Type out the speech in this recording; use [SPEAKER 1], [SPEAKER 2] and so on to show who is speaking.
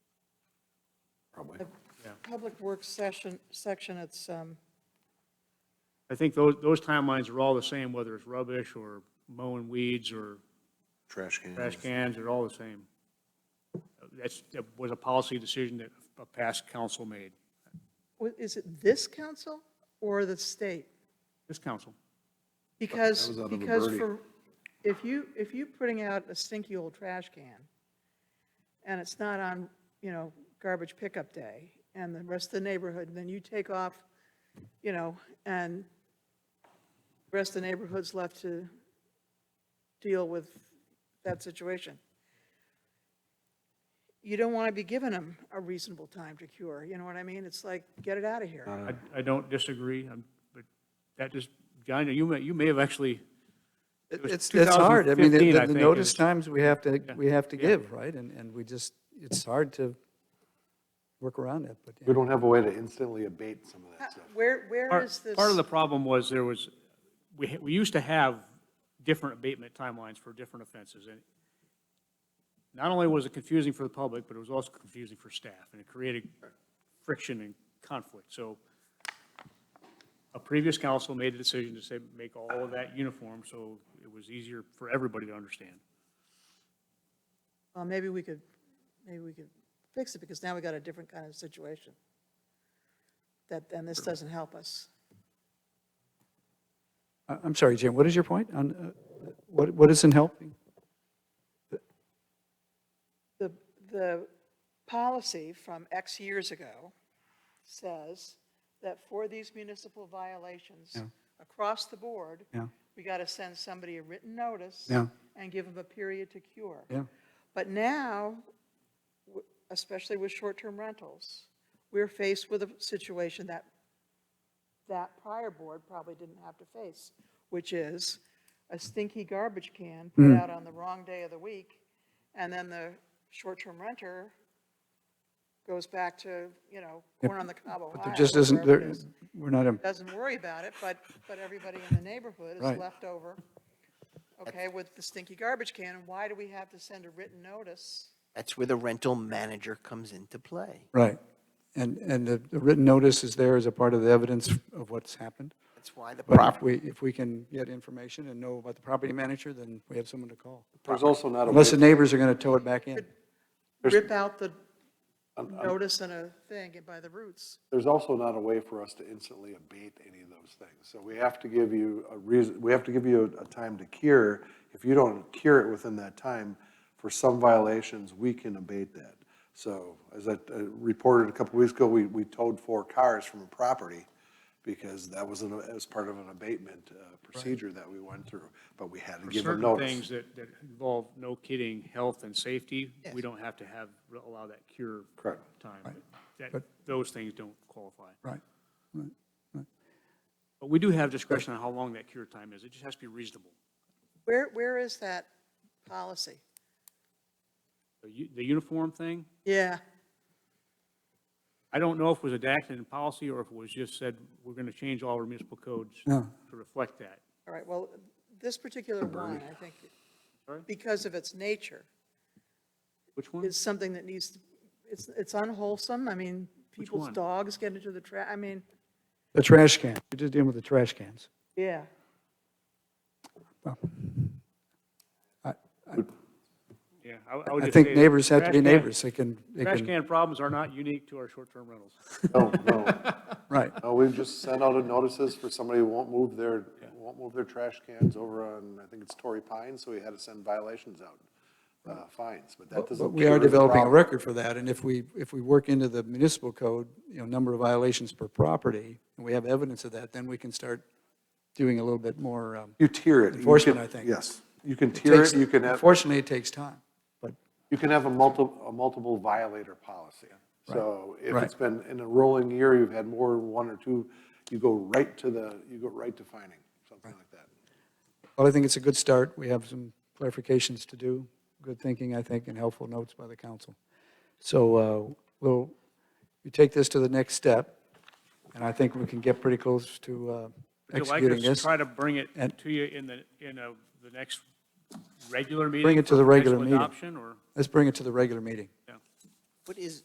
[SPEAKER 1] the
[SPEAKER 2] Yeah.
[SPEAKER 1] Public Works session, section, it's, um,
[SPEAKER 2] I think those, those timelines are all the same, whether it's rubbish or mowing weeds or
[SPEAKER 3] Trash can.
[SPEAKER 2] trash cans, they're all the same. That's, that was a policy decision that a past council made,
[SPEAKER 1] what- is it this council or the state?
[SPEAKER 2] this council.
[SPEAKER 1] Because,
[SPEAKER 3] was out of a
[SPEAKER 1] because
[SPEAKER 3] birdie.
[SPEAKER 1] for, if you, if you putting out a stinky old trash can, and it's not on, you know, garbage pickup day, and the rest of the neighborhood, then you take off, you know, and the rest of the neighborhood's left to deal with that situation. You don't want to be giving them a reasonable time to cure, you know what I mean? It's like, get it out of here.
[SPEAKER 2] I, I don't disagree, I'm- but that just, John, you may, you may have actually,
[SPEAKER 4] It-
[SPEAKER 2] was
[SPEAKER 4] It's, it's hard. I mean, the-
[SPEAKER 2] 2015, I
[SPEAKER 4] the, the
[SPEAKER 2] think,
[SPEAKER 4] notice
[SPEAKER 2] is-
[SPEAKER 4] times we have to, we have to
[SPEAKER 2] yeah.
[SPEAKER 4] give, right? And, and we just, it's hard to work around it, but. yeah.
[SPEAKER 3] We don't have a way to instantly abate some of that stuff.
[SPEAKER 1] Where, where is
[SPEAKER 2] part,
[SPEAKER 1] this?
[SPEAKER 2] part of the problem was there was, we, ha- we used to have different abatement timelines for different offenses, and not only was it confusing for the public, but it was also confusing for staff, and it created friction and conflict, so a previous council made a decision to say, make all of that uniform, so it was easier for everybody to understand.
[SPEAKER 1] Well, maybe we could, maybe we could fix it, because now we got a different kind of situation. That, and this doesn't help us.
[SPEAKER 4] I- I'm sorry, Jim, what is your point on, uh, what, what isn't helping?
[SPEAKER 1] The, the policy from X years ago says that for these municipal violations,
[SPEAKER 4] Yeah.
[SPEAKER 1] across the board,
[SPEAKER 4] Yeah,
[SPEAKER 1] we got to send somebody a written notice
[SPEAKER 4] Yeah.
[SPEAKER 1] and give them a period to cure.
[SPEAKER 4] yeah,
[SPEAKER 1] But now, w- especially with short-term rentals, we're faced with a situation that that prior board probably didn't have to face, which is a stinky garbage can
[SPEAKER 4] Hmm.
[SPEAKER 1] put out on the wrong day of the week, and then the short-term renter goes back to, you know, corn on the cob, Ohio.
[SPEAKER 4] but there just isn't,
[SPEAKER 1] wherever it
[SPEAKER 4] there,
[SPEAKER 1] is
[SPEAKER 4] we're not, in-
[SPEAKER 1] doesn't worry about it, but, but everybody in the neighborhood is
[SPEAKER 4] Right.
[SPEAKER 1] left over, okay, with the stinky garbage can, and why do we have to send a written notice?
[SPEAKER 5] That's where the rental manager comes into play.
[SPEAKER 4] right. And, and the the written notice is there as a part of the evidence of what's happened.
[SPEAKER 5] That's why the
[SPEAKER 4] But if
[SPEAKER 5] property,
[SPEAKER 4] we, if we can get information and know about the property manager, then we have someone to call.
[SPEAKER 3] There's also not a, way-
[SPEAKER 4] Unless the neighbors are going to tow it back in.
[SPEAKER 1] Rip out the notice and a thing and by the roots.
[SPEAKER 3] there's also not a way for us to instantly abate any of those things. So we have to give you a reason, we have to give you a, a time to cure. If you don't cure it within that time, for some violations, we can abate that. So as I uh, reported a couple weeks ago, we, we towed four cars from a property because that was an, as part of an abatement uh, procedure that we went through, but we had to give them
[SPEAKER 2] Certain
[SPEAKER 3] notice.
[SPEAKER 2] things that, that involve, no kidding, health and safety, we don't have to have, allow that cure
[SPEAKER 3] Correct.
[SPEAKER 2] time. but That, those things don't qualify.
[SPEAKER 4] Right.
[SPEAKER 2] But we do have discretion on how long that cure time is. It just has to be reasonable.
[SPEAKER 1] Where, where is that policy?
[SPEAKER 2] The u- The uniform thing,
[SPEAKER 1] Yeah,
[SPEAKER 2] I don't know if it was adopted in policy or if it was just said, we're going to change all our municipal codes to reflect that.
[SPEAKER 1] all right, well, this particular one, I think, because of its nature,
[SPEAKER 2] Which one?
[SPEAKER 1] is something that needs, to it's, it's unwholesome, I mean, people's
[SPEAKER 2] one?
[SPEAKER 1] dogs get into the tra, I mean,
[SPEAKER 4] The trash can, we're just dealing with the trash cans.
[SPEAKER 1] yeah.
[SPEAKER 2] Yeah, I- I would
[SPEAKER 4] I
[SPEAKER 2] just
[SPEAKER 4] think
[SPEAKER 2] say
[SPEAKER 4] neighbors have to
[SPEAKER 2] trash
[SPEAKER 4] be
[SPEAKER 2] can-
[SPEAKER 4] neighbors, they can, they
[SPEAKER 2] Trash
[SPEAKER 4] can,
[SPEAKER 2] can problems are not unique to our short-term rentals.
[SPEAKER 3] No, no.
[SPEAKER 4] right.
[SPEAKER 3] No, Uh, we've just sent out a notices for somebody who won't move their, won't move their trash cans over on, I think it's Torrey Pines, so we had to send violations out, uh, fines, but that doesn't.
[SPEAKER 4] But we are
[SPEAKER 3] cure the
[SPEAKER 4] developing a
[SPEAKER 3] problem.
[SPEAKER 4] record for that, and if we, if we work into the municipal code, you know, number of violations per property, and we have evidence of that, then we can start doing a little bit more, um,
[SPEAKER 3] You tier it. You
[SPEAKER 4] Enforcement,
[SPEAKER 3] can-
[SPEAKER 4] I think.
[SPEAKER 3] Yes, you can tier
[SPEAKER 4] takes-
[SPEAKER 3] it, you can have,
[SPEAKER 4] unfortunately, it takes time, but,
[SPEAKER 3] you can have a multiple, a multiple violator policy. So if
[SPEAKER 4] Right.
[SPEAKER 3] it's been in a rolling year, you've had more than one or two, you go right to the, you go right to fining, something like that.
[SPEAKER 4] well, I think it's a good start, we have some clarifications to do, good thinking, I think, and helpful notes by the council. So, uh, we'll, we take this to the next step, and I think we can get pretty close to uh,
[SPEAKER 2] Would you like
[SPEAKER 4] executing
[SPEAKER 2] us to
[SPEAKER 4] this.
[SPEAKER 2] try to bring it
[SPEAKER 4] And-
[SPEAKER 2] to you in the, in a- the next regular meeting?
[SPEAKER 4] it to
[SPEAKER 2] for
[SPEAKER 4] the regular
[SPEAKER 2] potential
[SPEAKER 4] meeting.
[SPEAKER 2] Adoption, or?
[SPEAKER 4] Let's bring it to the regular meeting.
[SPEAKER 5] what is,